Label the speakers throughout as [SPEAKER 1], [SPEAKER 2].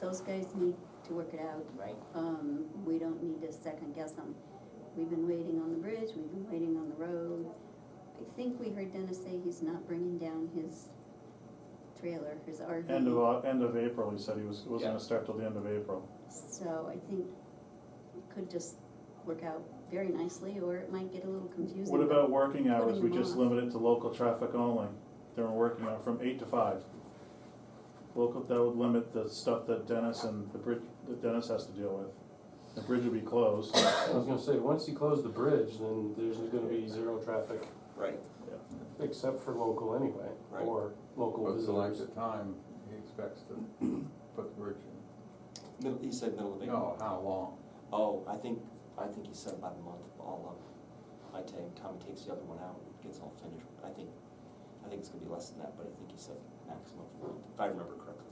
[SPEAKER 1] those guys need to work it out.
[SPEAKER 2] right?
[SPEAKER 1] Um, we don't need to second guess them. We've been waiting on the bridge, we've been waiting on the road. I think we heard Dennis say he's not bringing down his trailer, his RV.
[SPEAKER 3] End of, uh, end of April, he said he was, was
[SPEAKER 2] Yeah.
[SPEAKER 3] gonna start till the end of April.
[SPEAKER 1] So I think it could just work out very nicely, or it might get a little confusing.
[SPEAKER 3] What
[SPEAKER 1] but-
[SPEAKER 3] about working hours?
[SPEAKER 1] putting
[SPEAKER 3] We
[SPEAKER 1] them
[SPEAKER 3] just
[SPEAKER 1] off.
[SPEAKER 3] limit it to local traffic only during working hour, from eight to five. Local, that would limit the stuff that Dennis and the bridge, that Dennis has to deal with. The bridge would be closed.
[SPEAKER 4] I was gonna say, once you close the bridge, then there's gonna be zero traffic,
[SPEAKER 2] Right.
[SPEAKER 4] except for local anyway,
[SPEAKER 2] Right.
[SPEAKER 4] or local
[SPEAKER 5] But select
[SPEAKER 4] visitors.
[SPEAKER 5] the time he expects to put the bridge in.
[SPEAKER 2] Middle, he said middle of April.
[SPEAKER 5] No, how long?
[SPEAKER 2] Oh, I think, I think he said about a month, all up. I take, Tommy takes the other one out, and gets all finished, I think, I think it's gonna be less than that, but I think he said maximum for a month, if I remember correctly.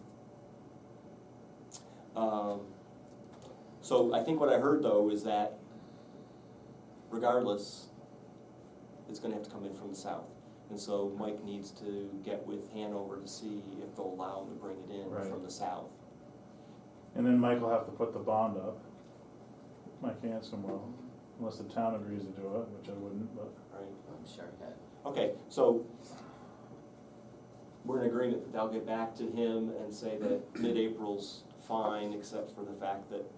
[SPEAKER 2] Um, so I think what I heard though is that regardless, it's gonna have to come in from the south. And so Mike needs to get with Hanover to see if they'll allow him to bring it in from
[SPEAKER 3] Right.
[SPEAKER 2] the south.
[SPEAKER 3] And then Mike will have to put the bond up. Mike Hanson will, unless the town agrees to do it, which I wouldn't, but.
[SPEAKER 2] Right.
[SPEAKER 6] I'm sure that
[SPEAKER 2] Okay, so we're in agreement that they'll get back to him and say that mid-April's fine, except for the fact that,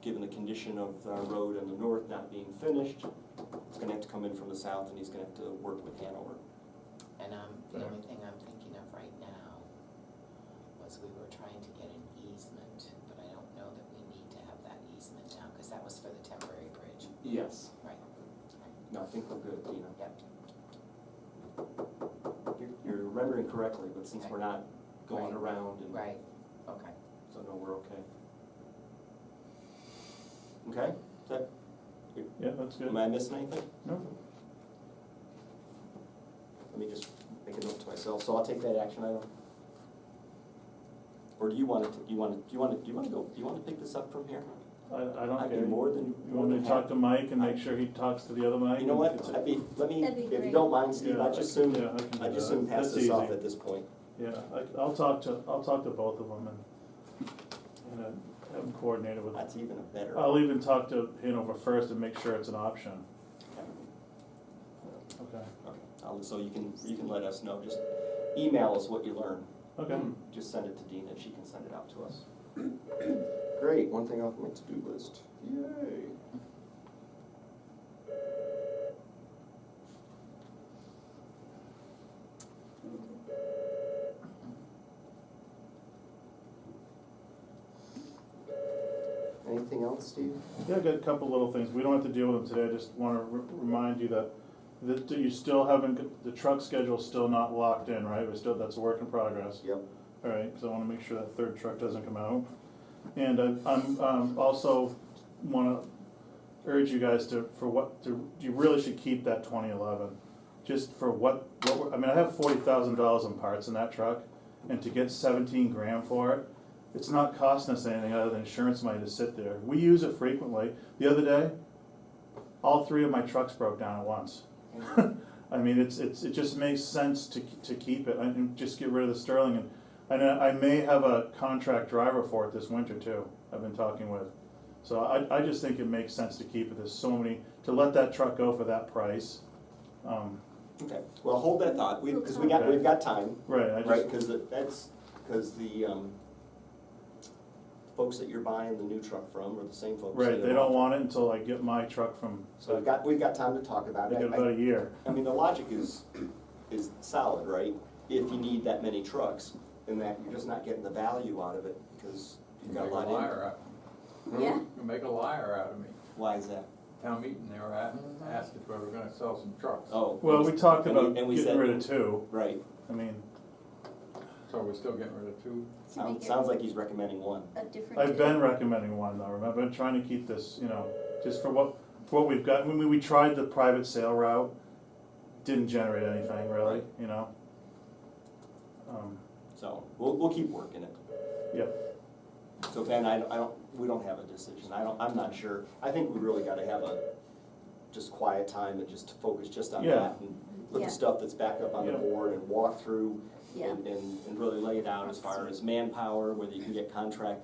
[SPEAKER 2] given the condition of our road and the north not being finished, it's gonna have to come in from the south and he's gonna have to work with Hanover.
[SPEAKER 6] And um, the
[SPEAKER 3] Yeah.
[SPEAKER 6] only thing I'm thinking of right now was we were trying to get an easement, but I don't know that we need to have that easement now, cause that was for the temporary bridge,
[SPEAKER 2] Yes.
[SPEAKER 6] right?
[SPEAKER 2] No, I think we're good, Dina.
[SPEAKER 6] Yep,
[SPEAKER 2] You're- You're remembering correctly, but since we're not going
[SPEAKER 6] Right.
[SPEAKER 2] around and,
[SPEAKER 6] right, okay.
[SPEAKER 2] so no, we're okay. Okay, is that,
[SPEAKER 3] Yeah, that's good.
[SPEAKER 2] am I missing anything?
[SPEAKER 3] No.
[SPEAKER 2] Let me just make a note to myself, so I'll take that action item. Or do you want to, you want to, do you want to, do you want to go, do you want to pick this up from here?
[SPEAKER 3] I, I
[SPEAKER 2] I'd
[SPEAKER 3] don't
[SPEAKER 2] be
[SPEAKER 3] care.
[SPEAKER 2] more than-
[SPEAKER 3] You
[SPEAKER 2] more
[SPEAKER 3] want me
[SPEAKER 2] than
[SPEAKER 3] to talk
[SPEAKER 2] happy.
[SPEAKER 3] to Mike and make sure he talks to the other Mike?
[SPEAKER 2] You know
[SPEAKER 3] and-
[SPEAKER 2] what, I'd be, let me,
[SPEAKER 1] That'd be
[SPEAKER 2] if you
[SPEAKER 1] great.
[SPEAKER 2] don't mind, Steve,
[SPEAKER 3] Yeah,
[SPEAKER 2] I'd just
[SPEAKER 3] I can-
[SPEAKER 2] soon,
[SPEAKER 3] yeah, can do
[SPEAKER 2] I'd just
[SPEAKER 3] that.
[SPEAKER 2] soon pass
[SPEAKER 3] That's
[SPEAKER 2] this off
[SPEAKER 3] easy.
[SPEAKER 2] at this point.
[SPEAKER 3] Yeah, I, I'll talk to, I'll talk to both of them and, and uh, have them coordinated with.
[SPEAKER 2] That's even a better.
[SPEAKER 3] I'll even talk to Hanover first and make sure it's an option.
[SPEAKER 2] Okay,
[SPEAKER 3] Okay.
[SPEAKER 2] okay. I'll- So you can, you can let us know, just email us what you learn.
[SPEAKER 3] Okay,
[SPEAKER 2] Just send it to Dina, she can send it out to us. Great, one thing off my to-do list, yay. Anything else, Steve?
[SPEAKER 3] yeah, I've got a couple little things, we don't have to deal with them today, I just wanna re- remind you that, that you still haven't, got- the truck schedule's still not locked in, right? We still, that's a work in progress.
[SPEAKER 2] Yep.
[SPEAKER 3] All right, because I want to make sure that third truck doesn't come out. And I- I'm um, also want to urge you guys to, for what, to you really should keep that 2011. Just for what, what we're- I mean, I have $40,000 in parts in that truck, and to get 17 grand for it, it's not costing us anything other than insurance money to sit there. We use it frequently. The other day, all three of my trucks broke down at once. I mean, it's, it's, it just makes sense to, to keep it, and just get rid of the Sterling, and, and I I may have a contract driver for it this winter too, I've been talking with. So I, I just think it makes sense to keep it, there's so many, to let that truck go for that price, um,
[SPEAKER 2] Okay, well, hold that thought, we, because we got, we've got time.
[SPEAKER 3] right, I just,
[SPEAKER 2] Right, because that's, because the, um, folks that you're buying the new truck from are the same folks. that
[SPEAKER 3] right, they
[SPEAKER 2] are-
[SPEAKER 3] don't want it until I get my truck from,
[SPEAKER 2] So we've got, we've got time to talk about
[SPEAKER 3] they got
[SPEAKER 2] it.
[SPEAKER 3] about
[SPEAKER 2] I-
[SPEAKER 3] a year.
[SPEAKER 2] I mean, the logic is, is solid, right? If you need that many trucks, and that you're just not getting the value out of it, because you've got a
[SPEAKER 5] Make
[SPEAKER 2] lot in.
[SPEAKER 5] liar out-
[SPEAKER 1] Yeah.
[SPEAKER 5] You make a liar out of me.
[SPEAKER 2] Why is that?
[SPEAKER 5] Town meeting, they were at, asked if we were gonna sell some trucks.
[SPEAKER 2] Mm-hmm. Oh.
[SPEAKER 3] Well, we talked
[SPEAKER 2] and we-
[SPEAKER 3] about
[SPEAKER 2] and we
[SPEAKER 3] getting
[SPEAKER 2] said-
[SPEAKER 3] rid of two,
[SPEAKER 2] Right,
[SPEAKER 3] I mean,
[SPEAKER 5] So we're still getting rid of two?
[SPEAKER 1] To make
[SPEAKER 2] sounds,
[SPEAKER 1] it
[SPEAKER 2] sounds like he's recommending one.
[SPEAKER 1] a different.
[SPEAKER 3] I've been recommending one though, remember, I'm trying to keep this, you know, just for what, for what we've got, I mean, we tried the private sale route, didn't generate anything really,
[SPEAKER 2] Right.
[SPEAKER 3] you know? Um,
[SPEAKER 2] So, we'll, we'll keep working it.
[SPEAKER 3] Yeah.
[SPEAKER 2] So Ben, I, I don't, we don't have a decision, I don't, I'm not sure, I think we really gotta have a, just quiet time and just focus just on
[SPEAKER 3] Yeah.
[SPEAKER 2] that. and Look
[SPEAKER 1] Yeah.
[SPEAKER 2] at stuff that's back up on the
[SPEAKER 3] Yeah.
[SPEAKER 2] board and walk through
[SPEAKER 1] Yeah.
[SPEAKER 2] And, and and really lay it out as far as manpower, whether you can get contract